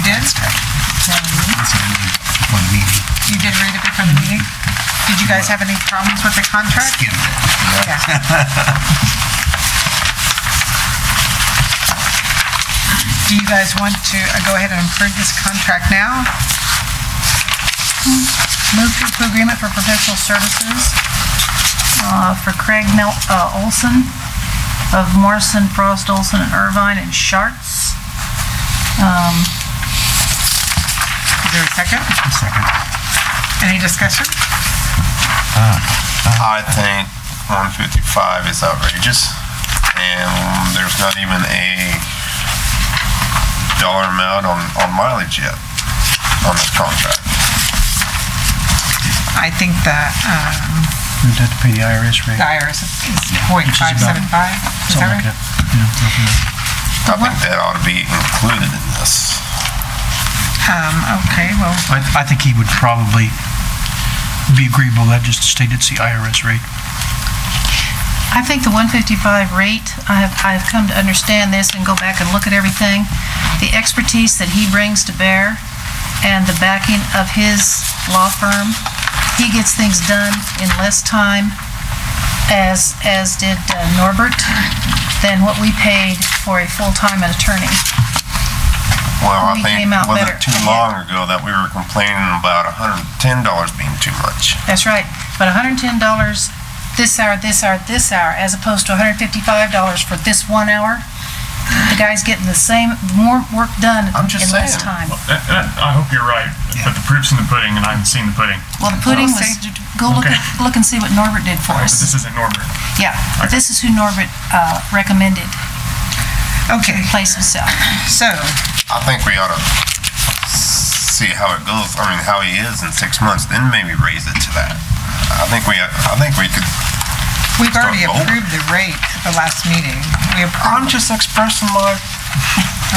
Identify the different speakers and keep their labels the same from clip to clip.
Speaker 1: did?
Speaker 2: That's what I mean, for the meeting,
Speaker 1: You did read it before the meeting? Did you guys have any problems with the contract?
Speaker 2: skimmed it.
Speaker 1: Yeah. Do you guys want to uh, go ahead and approve this contract now?
Speaker 3: Move to approve agreement for professional services uh, for Craig Mel- uh, Olson of Morrison, Frost, Olson, and Irvine and Sharts.
Speaker 1: Is there a second?
Speaker 2: A second.
Speaker 1: Any discussion?
Speaker 4: I think 155 is outrageous, and there's not even a dollar amount on, on mileage yet on this contract.
Speaker 1: I think that, um,
Speaker 5: You'd have to pay the IRS rate.
Speaker 1: the IRS is point
Speaker 5: Which
Speaker 1: five
Speaker 5: is about-
Speaker 1: seven five, is that right?
Speaker 5: Something like that. Yeah, roughly that.
Speaker 4: I think that ought to be included in this.
Speaker 1: Um, okay, well,
Speaker 5: I, I think he would probably be agreeable with that, just to state it's the IRS rate.
Speaker 3: I think the 155 rate, I have, I have come to understand this and go back and look at everything, the expertise that he brings to bear and the backing of his law firm, he gets things done in less time as, as did uh, Norbert, than what we paid for a full-time attorney.
Speaker 4: Well, I
Speaker 3: We
Speaker 4: think,
Speaker 3: came out
Speaker 4: was
Speaker 3: better.
Speaker 4: it too long ago that we were complaining about $110 being too much?
Speaker 3: That's right, but $110 this hour, this hour, this hour, as opposed to $155 for this one hour, the guy's getting the same, more work done
Speaker 4: I'm just
Speaker 3: in less time.
Speaker 4: saying.
Speaker 6: Uh, uh, I hope you're right, but the proof's in the pudding, and I haven't seen the pudding.
Speaker 3: Well, the pudding
Speaker 1: Well,
Speaker 3: was,
Speaker 1: see.
Speaker 3: go look,
Speaker 6: Okay.
Speaker 3: at- look and see what Norbert did for
Speaker 6: But this
Speaker 3: us.
Speaker 6: isn't Norbert.
Speaker 3: Yeah, but this is who Norbert uh, recommended
Speaker 1: okay,
Speaker 3: place himself.
Speaker 1: so,
Speaker 4: I think we ought to see how it goes, I mean, how he is in six months, then maybe raise it to that. I think we, I think we could
Speaker 1: we've already
Speaker 4: Start over.
Speaker 1: approved the rate at the last meeting. We
Speaker 4: I'm
Speaker 1: approved,
Speaker 4: just expressing my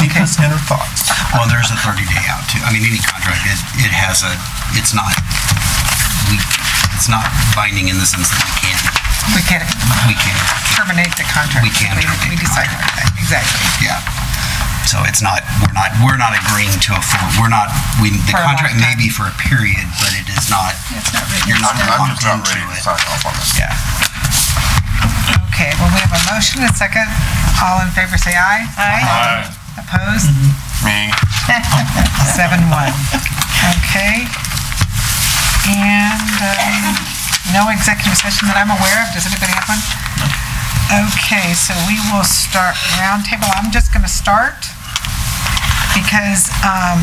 Speaker 4: deepest inner thoughts.
Speaker 2: Well, there's a 30-day out too. I mean, any contract, it, it has a, it's not, we, it's not binding in the sense that we can't,
Speaker 1: we can't
Speaker 2: we can't,
Speaker 1: terminate the contract.
Speaker 2: We can't terminate
Speaker 1: We
Speaker 2: the
Speaker 1: decided that, exactly.
Speaker 2: yeah. So it's not, we're not, we're not agreeing to a full, we're not, we, the
Speaker 1: For a
Speaker 2: contract may
Speaker 1: lifetime.
Speaker 2: be for a period, but it is not, you're not
Speaker 4: I'm just
Speaker 2: locked
Speaker 4: not
Speaker 2: into
Speaker 4: ready to
Speaker 2: it.
Speaker 4: sign off on this.
Speaker 2: Yeah.
Speaker 1: Okay, well, we have a motion and a second. All in favor, say aye.
Speaker 3: Aye.
Speaker 6: Uh,
Speaker 1: Opposed?
Speaker 4: Me,
Speaker 1: Seven one. Okay. And um, no executive session that I'm aware of. Does anybody have one? Okay, so we will start roundtable. I'm just going to start because um,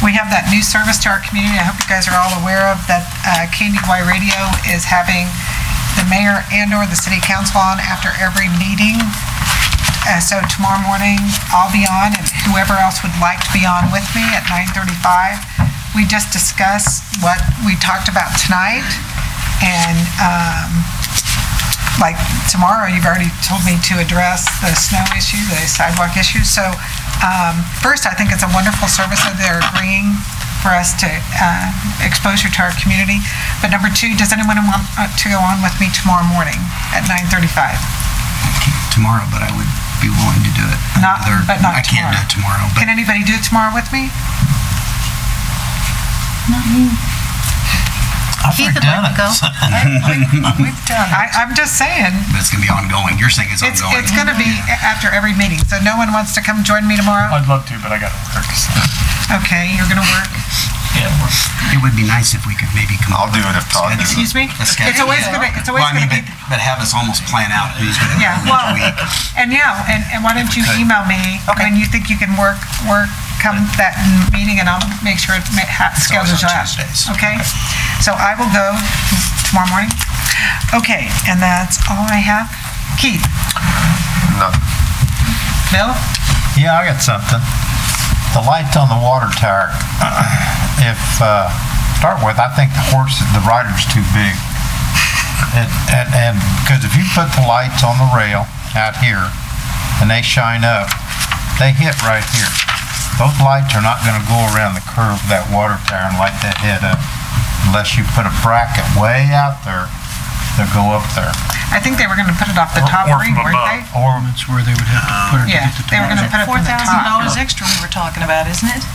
Speaker 1: we have that new service to our community. I hope you guys are all aware of that uh, KNY Radio is having the mayor and/or the city council on after every meeting. Uh, So tomorrow morning, I'll be on, and whoever else would like to be on with me at 9:35. We just discuss what we talked about tonight, and um, like tomorrow, you've already told me to address the snow issue, the sidewalk issue. So um, first, I think it's a wonderful service that they're agreeing for us to uh, exposure to our community. But number two, does anyone want uh, to go on with me tomorrow morning at 9:35?
Speaker 2: Tomorrow, but I would be willing to do it.
Speaker 1: Not-
Speaker 2: another-
Speaker 1: but not
Speaker 2: I can't do it tomorrow, but
Speaker 1: Can anybody do it tomorrow with me?
Speaker 3: Keith would like to go.
Speaker 1: I, I'm just saying,
Speaker 2: but it's gonna be ongoing. You're saying it's
Speaker 1: it's,
Speaker 2: ongoing.
Speaker 1: it's gonna be after every meeting, so no one wants to come join me tomorrow?
Speaker 6: I'd love to, but I gotta work. so.
Speaker 1: Okay, you're gonna work,
Speaker 2: It would be nice if we could maybe come.
Speaker 4: I'll
Speaker 2: up
Speaker 4: do
Speaker 2: with
Speaker 4: it if Todd
Speaker 2: a
Speaker 4: does it.
Speaker 2: schedule-
Speaker 1: excuse me?
Speaker 2: A schedule.
Speaker 1: It's always gonna, it's always
Speaker 2: Well, I mean,
Speaker 1: gonna be,
Speaker 2: but, but have us almost plan out who's going to
Speaker 1: yeah,
Speaker 2: go
Speaker 1: well,
Speaker 2: which week.
Speaker 1: and yeah, and, and why don't you
Speaker 2: could.
Speaker 1: email me when you think you can work, work, come that meeting, and I'll make sure it's ma- ha-
Speaker 2: always
Speaker 1: scheduled
Speaker 2: on
Speaker 1: out.
Speaker 2: Tuesdays.
Speaker 1: Okay, so I will go tomorrow morning. Okay, and that's all I have. Keith,
Speaker 4: Nothing.
Speaker 1: Bill?
Speaker 7: Yeah, I got something. The lights on the water tower, if, uh, start with, I think the horse, the rider's too big. And, and- and, because if you put the lights on the rail out here and they shine up, they hit right here. Those lights are not gonna go around the curve of that water tower and light that head up unless you put a bracket way out there. They'll go up there.
Speaker 1: I think they were gonna put it off the
Speaker 6: Or-
Speaker 1: top
Speaker 6: or
Speaker 1: ring,
Speaker 6: from
Speaker 1: weren't they?
Speaker 6: above.
Speaker 7: Or
Speaker 5: That's where they would have to put her to
Speaker 1: Yeah,
Speaker 5: get the
Speaker 1: they were
Speaker 5: tower.
Speaker 1: gonna put it from the top.
Speaker 3: $4,000 extra we were talking about, isn't it?